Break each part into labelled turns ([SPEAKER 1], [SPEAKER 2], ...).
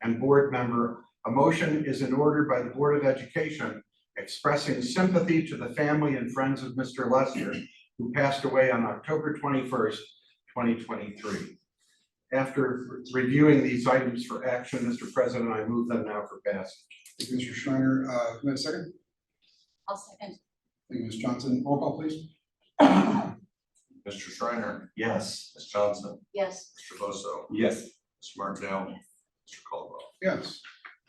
[SPEAKER 1] and board member, a motion is in order by the Board of Education expressing sympathy to the family and friends of Mr. Lester, who passed away on October twenty-first, twenty twenty-three. After reviewing these items for action, Mr. President, I move them now for passage.
[SPEAKER 2] Thank you, Mr. Schreiner, uh, can I have a second?
[SPEAKER 3] I'll second.
[SPEAKER 2] Thank you, Ms. Johnson, roll call please.
[SPEAKER 4] Mr. Schreiner,
[SPEAKER 1] Yes.
[SPEAKER 4] Ms. Johnson,
[SPEAKER 3] Yes.
[SPEAKER 4] Mr. Bosso,
[SPEAKER 1] Yes.
[SPEAKER 4] Ms. Martindale,
[SPEAKER 3] Yes.
[SPEAKER 4] Mr. Caldwell.
[SPEAKER 2] Yes.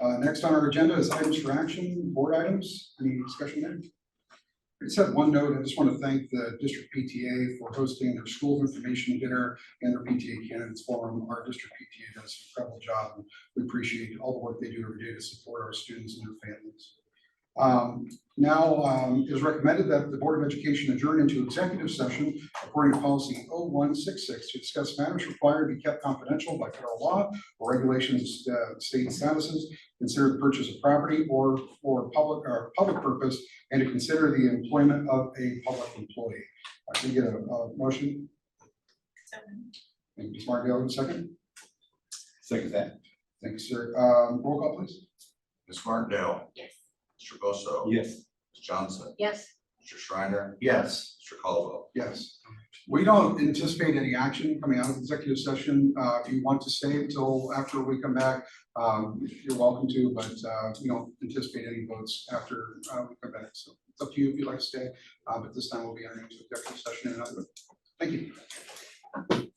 [SPEAKER 2] Uh, next on our agenda is items for action, board items. Any discussion there? I just have one note. I just want to thank the district PTA for hosting their school information dinner and their PTA candidates forum. Our district PTA does an incredible job. and We appreciate all the work they do every day to support our students and their families. Um, now, um, it is recommended that the Board of Education adjourn into executive session according to policy 0166 to discuss matters required to be kept confidential by federal law or regulations, uh, state statuses, consider the purchase of property or for public, or public purpose, and to consider the employment of a public employee. I can get a, a motion, Thank you, Ms. Martindale, a second.
[SPEAKER 5] Second that.
[SPEAKER 2] Thanks, sir. Um, roll call, please.
[SPEAKER 4] Ms. Martindale,
[SPEAKER 3] Yes.
[SPEAKER 4] Mr. Bosso.
[SPEAKER 5] Yes.
[SPEAKER 4] Ms. Johnson,
[SPEAKER 3] Yes.
[SPEAKER 4] Mr. Schreiner,
[SPEAKER 1] Yes.
[SPEAKER 4] Mr. Caldwell.
[SPEAKER 2] Yes. We don't anticipate any action coming out of executive session. Uh, if you want to stay until after we come back, um, you're welcome to, but, uh, we don't anticipate any votes after, uh, we come back. So it's up to you if you'd like to stay, uh, but this time we'll be entering into executive session and other. Thank you.